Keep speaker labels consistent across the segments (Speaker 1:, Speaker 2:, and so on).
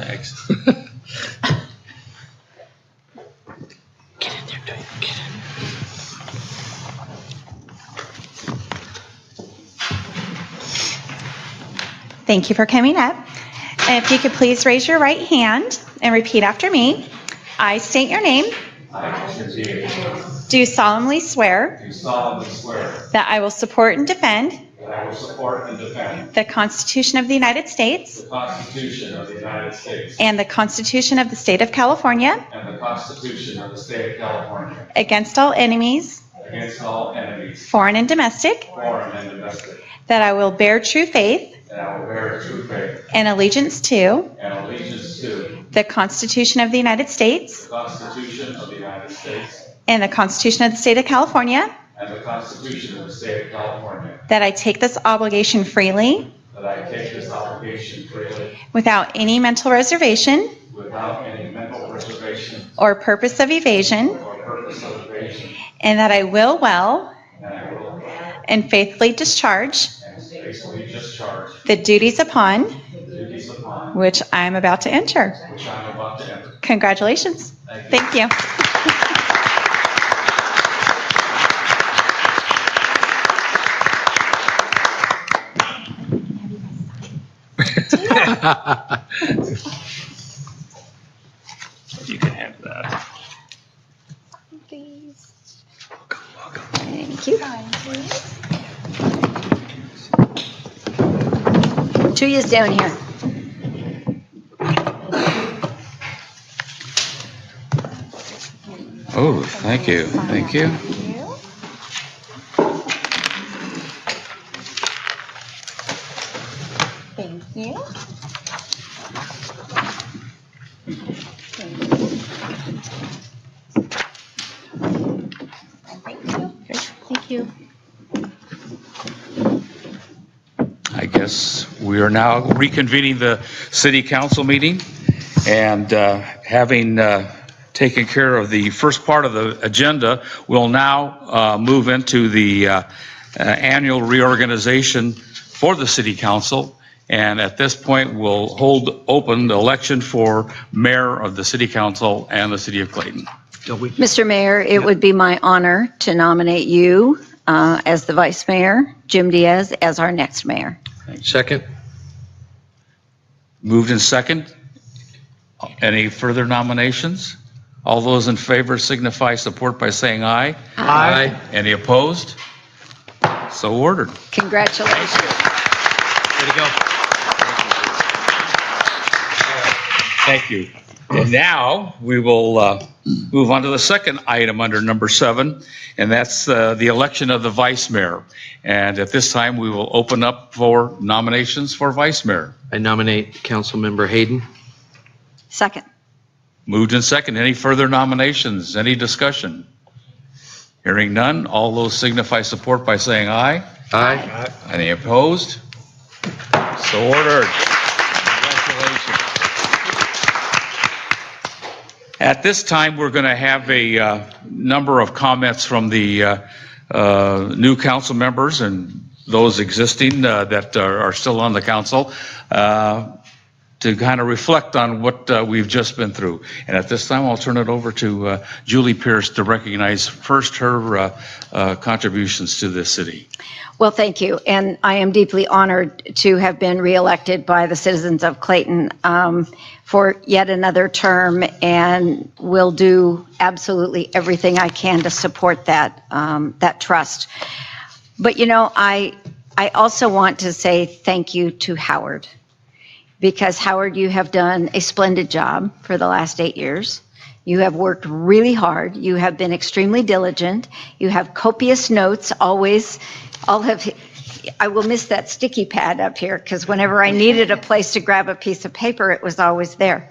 Speaker 1: next.
Speaker 2: Get in there, Dwayne, get in.
Speaker 3: Thank you for coming up. And If you could please raise your right hand and repeat after me. I state your name,
Speaker 1: I, Mr. Davis,
Speaker 3: do solemnly swear
Speaker 1: do solemnly swear
Speaker 3: that I will support and defend
Speaker 1: that I will support and defend
Speaker 3: the Constitution of the United States
Speaker 1: the Constitution of the United States
Speaker 3: and the Constitution of the State of California
Speaker 1: and the Constitution of the State of California
Speaker 3: against all enemies,
Speaker 1: against all enemies,
Speaker 3: foreign and domestic,
Speaker 1: foreign and domestic,
Speaker 3: that I will bear true faith
Speaker 1: that I will bear true faith
Speaker 3: and allegiance to
Speaker 1: and allegiance to
Speaker 3: the Constitution of the United States
Speaker 1: the Constitution of the United States
Speaker 3: and the Constitution of the State of California,
Speaker 1: and the Constitution of the State of California,
Speaker 3: that I take this obligation freely
Speaker 1: that I take this obligation freely
Speaker 3: without any mental reservation
Speaker 1: without any mental reservation
Speaker 3: or purpose of evasion,
Speaker 1: or purpose of evasion,
Speaker 3: and that I will well
Speaker 1: and I will
Speaker 3: and faithfully discharge
Speaker 1: and faithfully discharge
Speaker 3: the duties upon
Speaker 1: the duties upon
Speaker 3: which I am about to enter.
Speaker 1: which I am about to enter.
Speaker 3: Congratulations.
Speaker 1: Thank you.
Speaker 3: Thank you.
Speaker 2: You can have that.
Speaker 3: Thank you.
Speaker 4: Two years down here.
Speaker 2: Oh, thank you, thank you.
Speaker 3: Thank you.
Speaker 4: Thank you.
Speaker 2: I guess we are now reconvening the city council meeting. And uh, having uh, taken care of the first part of the agenda, we'll now uh, move into the uh, uh, annual reorganization for the city council. And at this point, we'll hold open the election for mayor of the city council and the city of Clayton.
Speaker 4: Mr. Mayor, it would be my honor to nominate you uh, as the vice mayor, Jim Diaz as our next mayor.
Speaker 5: Second?
Speaker 2: Moved in second. Any further nominations? All those in favor signify support by saying aye.
Speaker 5: Aye.
Speaker 2: Any opposed? So ordered.
Speaker 4: Congratulations.
Speaker 5: Way to go.
Speaker 2: Thank you. And now, we will uh, move on to the second item under number seven, and that's uh, the election of the vice mayor. And at this time, we will open up for nominations for vice mayor.
Speaker 5: I nominate Councilmember Hayden.
Speaker 4: Second.
Speaker 2: Moved in second. Any further nominations? Any discussion? Hearing none, all those signify support by saying aye.
Speaker 5: Aye.
Speaker 2: Any opposed? So ordered. Congratulations. At this time, we're going to have a uh, number of comments from the uh, uh, new council members and those existing uh, that are are still on the council uh, to kind of reflect on what uh, we've just been through. And at this time, I'll turn it over to uh, Julie Pierce to recognize first her uh, uh, contributions to this city.
Speaker 4: Well, thank you. And I am deeply honored to have been reelected by the citizens of Clayton um, for yet another term and will do absolutely everything I can to support that, um, that trust. But you know, I, I also want to say thank you to Howard because Howard, you have done a splendid job for the last eight years. You have worked really hard. You have been extremely diligent. You have copious notes always. All have, I will miss that sticky pad up here because whenever I needed a place to grab a piece of paper, it was always there.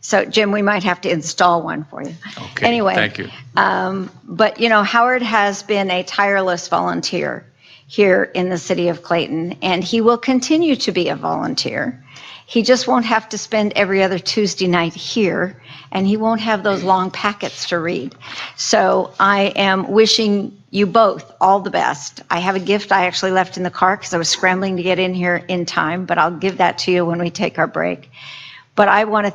Speaker 4: So Jim, we might have to install one for you.
Speaker 2: Okay,
Speaker 4: Anyway.
Speaker 2: Thank you.
Speaker 4: But, you know, Howard has been a tireless volunteer here in the city of Clayton, and he will continue to be a volunteer. He just won't have to spend every other Tuesday night here, and he won't have those long packets to read. So I am wishing you both all the best. I have a gift I actually left in the car because I was scrambling to get in here in time, but I'll give that to you when we take our break. But I want to